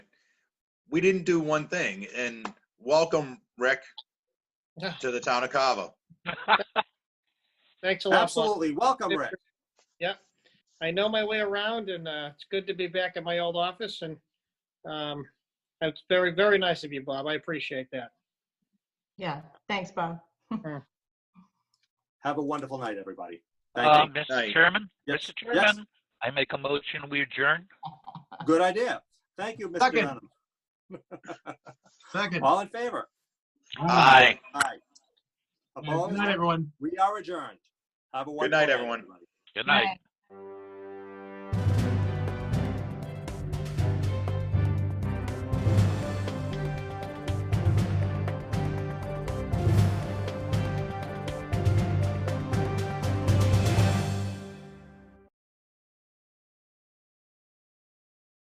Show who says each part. Speaker 1: we didn't do one thing, and welcome, Rick,
Speaker 2: Yeah.
Speaker 1: to the town of Cava.
Speaker 2: Thanks a lot. Bob.
Speaker 3: Absolutely. Welcome, Rick.
Speaker 2: I know my way around and uh, it's good to be back at my old office and um, it's very, very nice of you, Bob. I appreciate that.
Speaker 4: Yeah, thanks, Bob.
Speaker 3: Have a wonderful night, everybody.
Speaker 5: Uh,
Speaker 3: Thank you.
Speaker 1: Aye.
Speaker 5: Mr. Chairman,
Speaker 3: Yes.
Speaker 5: Mr.
Speaker 3: Yes.
Speaker 5: Chairman, I make a motion, we adjourn.
Speaker 3: Good idea. Thank you, Mr.
Speaker 6: Second.
Speaker 3: Dunham.
Speaker 6: Second.
Speaker 3: All in favor?
Speaker 1: Aye.
Speaker 3: Aye.
Speaker 6: Yeah, Good
Speaker 3: Opposed?
Speaker 6: night, everyone.
Speaker 3: We are adjourned. Have a wonderful
Speaker 1: night,
Speaker 3: day,
Speaker 1: everyone.
Speaker 3: everybody.
Speaker 5: Good night.